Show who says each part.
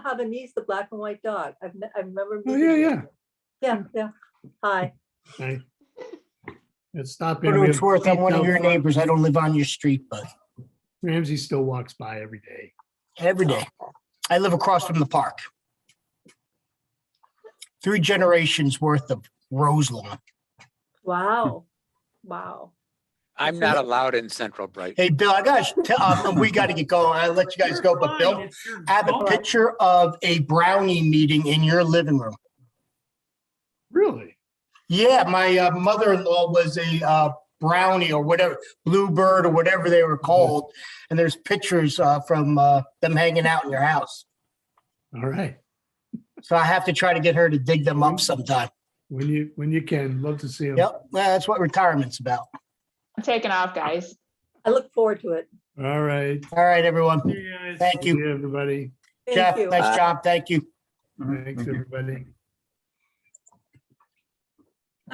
Speaker 1: have a niece, the black and white dog. I've, met- I remember.
Speaker 2: Oh,
Speaker 1: meeting
Speaker 2: yeah,
Speaker 1: you.
Speaker 2: yeah.
Speaker 1: Yeah, yeah. Hi.
Speaker 2: Okay. It's not
Speaker 3: For
Speaker 2: been.
Speaker 3: what it's worth, I'm one of
Speaker 2: Ramsey-
Speaker 3: your neighbors. I don't live on your street, but
Speaker 2: Ramsey still walks by every day.
Speaker 3: every day. I live across from the park. Three generations worth of rose lawn.
Speaker 1: Wow. Wow.
Speaker 4: I'm not allowed in Central Brighton.
Speaker 3: Hey, Bill, I gotta, tell- uh, we gotta get going. I'll let you guys go, but Bill, I have a picture of a brownie meeting in your living room.
Speaker 2: Really?
Speaker 3: Yeah, my uh, mother-in-law was a uh, brownie or whatever, bluebird or whatever they were called. And there's pictures uh, from uh, them hanging out in your house.
Speaker 2: All right.
Speaker 3: So I have to try to get her to dig them up sometime.
Speaker 2: When you, when you can, love to see him.
Speaker 3: Yep, well, that's what retirement's about.
Speaker 5: I'm taking off, guys.
Speaker 1: I look forward to it.
Speaker 2: All right.
Speaker 3: All right, everyone. Thank
Speaker 2: See
Speaker 3: you.
Speaker 2: everybody.
Speaker 1: Thank
Speaker 3: Jeff,
Speaker 1: you. Uh,
Speaker 3: nice job. Mm-hmm. Thank you.
Speaker 2: Thanks, everybody.